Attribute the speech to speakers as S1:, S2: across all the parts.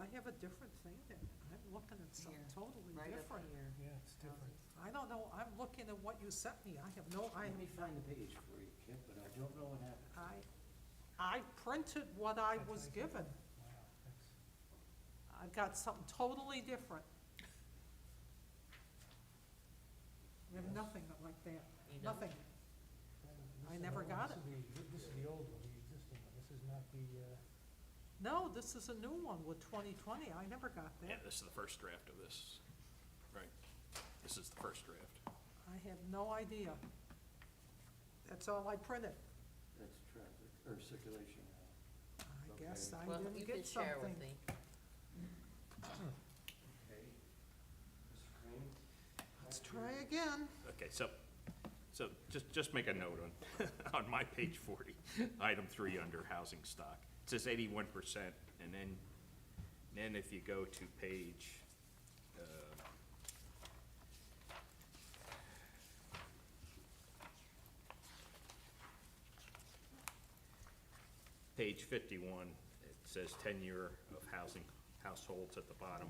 S1: I have a different thing there. I'm looking at something
S2: Here,
S1: totally
S2: right up
S1: different.
S2: here.
S3: Yeah, it's different.
S1: I don't know, I'm looking at what you sent me. I have no, I,
S4: Let me find the page for you, Kip, but I don't know what happened.
S1: I, I printed what I
S3: That's
S1: was
S3: like-
S1: given.
S3: Wow, that's-
S1: I got something totally different. We have nothing like that,
S2: You know?
S1: nothing.
S3: that is- this
S1: I
S3: is
S1: never
S3: the-
S1: got
S3: this is the- This is the old one, the existing one, this is not the, uh,
S1: No, this is a new one with twenty twenty. I never got
S5: Yeah,
S1: that.
S5: this is the first draft of this, right? This is the first draft.
S1: I have no idea. That's all I printed.
S4: That's traffic, or circulation.
S1: I
S4: Okay.
S1: guess I
S2: Well,
S1: didn't
S2: you
S1: get
S2: could share with
S1: something.
S2: me.
S4: Okay. Mr. Green?
S1: Let's try again.
S5: Okay, so, so just, just make a note on, on my page forty, item three under housing stock. It says eighty-one percent, and then, then if you go to page, uh, page fifty-one, it says tenure of housing, households at the bottom.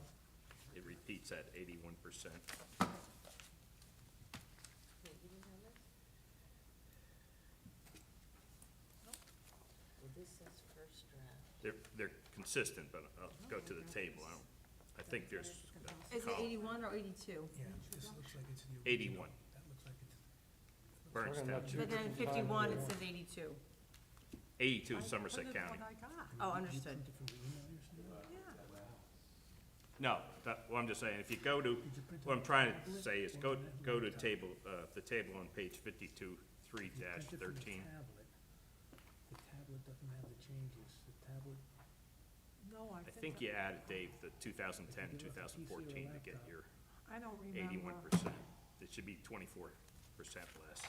S5: It repeats that eighty-one percent.
S2: Wait, you didn't have this? Well, this is first draft.
S5: They're, they're consistent, but I'll go to the table. I don't, I think there's a
S6: Is it
S5: column.
S6: eighty-one or eighty-two?
S3: yeah, this looks like it's the original.
S5: 81.
S3: That looks like it's.
S5: Burns
S4: Talking about
S5: Township,
S6: But then in fifty-one, it says eighty-two.
S5: eighty-two
S1: I
S5: Somerset
S1: printed what
S5: County.
S1: I got.
S6: Oh,
S3: Did you print
S6: understood.
S3: it from the email or something?
S1: Yeah.
S5: No, that, well, I'm just saying, if you go
S3: Did
S5: to,
S3: you print it
S5: what I'm
S3: on
S5: trying to
S3: tablet?
S5: say is
S3: Or
S5: go,
S3: on that
S5: go to
S3: laptop?
S5: table, uh, the table on page fifty-two, three
S3: If you
S5: dash
S3: print it from the
S5: thirteen.
S3: tablet, The tablet doesn't have the changes, the tablet.
S1: No, I
S5: I
S1: think. I-
S5: think you added, Dave, the 2010,
S3: If
S5: 2014
S3: you look at PC or
S5: to get
S3: laptop.
S5: your
S1: I don't remember.
S5: eighty-one percent. It should be twenty-four percent less,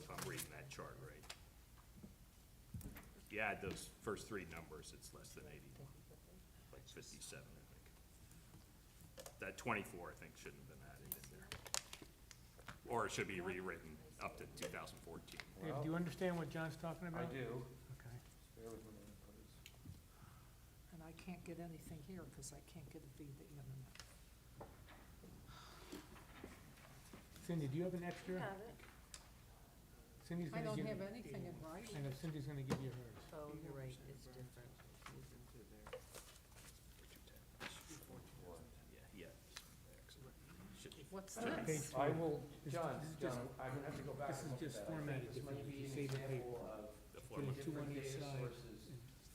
S5: if I'm reading that chart right. If you add those first three numbers, it's less than eighty-one, like fifty-seven, I think. That twenty-four, I think, shouldn't have been added in there. Or it should be rewritten up to two thousand fourteen.
S3: Dave, do you understand what John's talking about?
S4: do.
S3: Okay.
S4: Bear with me a minute, please.
S1: And I can't get anything here because I can't get it via the internet.
S3: Cindy, do you have an extra?
S2: Have it.
S3: Cindy's
S1: I
S3: gonna
S1: don't
S3: give.
S1: have anything in writing.
S3: I know Cindy's gonna give you hers.
S2: Oh, you're right, it's different.
S5: Yeah, yeah.
S1: What's
S3: Page
S1: this?
S3: four.
S7: I will,
S3: This-
S7: John,
S3: this is
S7: John,
S3: just-
S7: I'm gonna have to go back
S3: this is
S7: and look at
S3: just
S7: that. I think
S3: formatted
S7: This might
S3: differently.
S7: be an
S3: Save the paper.
S7: example of
S5: The floor
S3: Put it
S5: one.
S3: two on
S7: different
S3: each
S7: data
S3: side.
S7: sources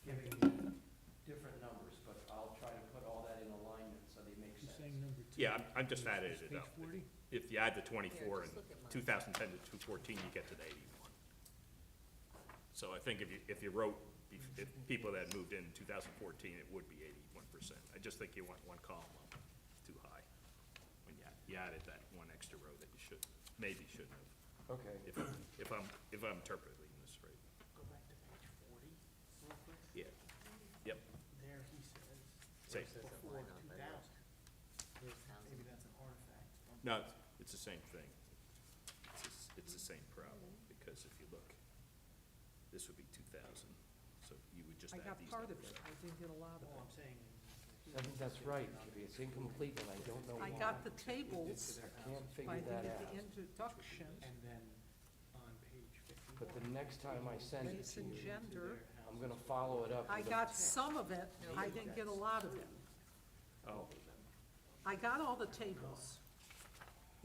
S7: giving you different numbers, but I'll try to put all that in alignment so they make
S3: She's
S7: sense.
S3: saying number two.
S5: Yeah, I'm, I'm just
S3: Is
S5: added
S3: this
S5: it up.
S3: Page forty?
S5: If you add the twenty-four and
S2: just look at mine.
S5: two thousand ten to two fourteen, you get to the eighty-one. So I think if you, if you wrote, bef- if people that moved in two thousand fourteen, it would be eighty-one percent. I just think you want one column up too high. When you, add- you added that one extra row that you should, maybe shouldn't have,
S7: Okay.
S5: if, I'm- if I'm, if I'm interpreting this right.
S4: Go back to page forty, real quick.
S5: Yeah, yep,
S4: There he says.
S5: Same.
S4: it says Before
S2: Line up,
S4: two
S2: but
S4: thousand,
S2: Here's housing.
S4: maybe that's an artifact.
S5: no, it's- it's the same thing. It's, the s- it's the same problem, because if you look, this would be two thousand, so you would
S1: I
S5: just add
S1: got
S5: these
S1: part of
S5: numbers
S1: it.
S5: up.
S1: I didn't get a lot
S4: All
S1: of
S4: I'm saying
S7: I
S4: is.
S7: think that's right, Kippy. it's incomplete and I don't
S1: it.
S7: know
S1: I
S7: why.
S1: got the tables,
S7: I can't
S1: but I didn't
S7: figure that
S1: get the
S7: out.
S1: introduction.
S4: And then on page fifty-one.
S7: But the next time I send it
S1: Race
S7: to
S1: and
S7: you,
S1: gender.
S7: I'm gonna follow it up
S1: I
S7: with a-
S1: got some of it. I didn't get a lot of it.
S5: Oh,
S1: I got all the tables.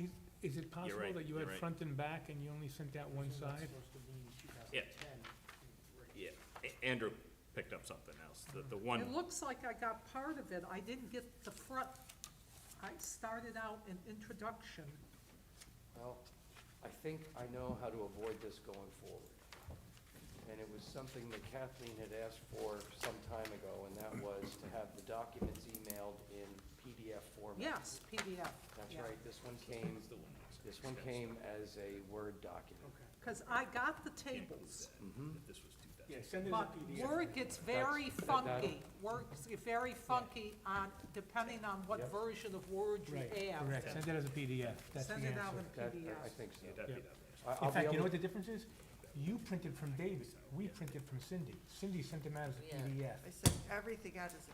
S3: Is, is it possible
S5: right,
S3: that you
S5: you're
S3: had
S5: right.
S3: front and back and you only sent out one side?
S4: Supposed to mean two thousand
S5: Yeah.
S4: ten.
S5: yeah, A- Andrew picked up something else, the, the one,
S1: It looks like I got part of it, I didn't get the front. I started out an introduction.
S7: Well, I think I know how to avoid this going forward. And it was something that Kathleen had asked for some time ago, and that was to have the documents emailed in PDF format.
S1: Yes, PDF.
S7: That's right, this one came, this one came as a Word document.
S4: Okay.
S1: Because I got the tables,
S5: if this was two thousand.
S4: Yeah, send it as a
S1: but
S4: PDF.
S1: Word gets very
S7: That's- that-
S1: funky. Word gets very funky on, depending on what
S7: Yep.
S1: version of Word you
S3: Right,
S1: have.
S3: correct, send it as a PDF, that's the
S1: Send
S3: answer.
S1: it out in
S7: That,
S1: PDF.
S7: I think so.
S5: Yeah, that'd be
S3: Yeah.
S5: the last.
S7: I-
S3: In
S7: I'll be
S3: fact, you know
S7: able,
S3: what the difference is? You printed from David, we printed from Cindy. Cindy sent them out as a
S2: Yeah.
S3: PDF.
S8: I sent everything out as a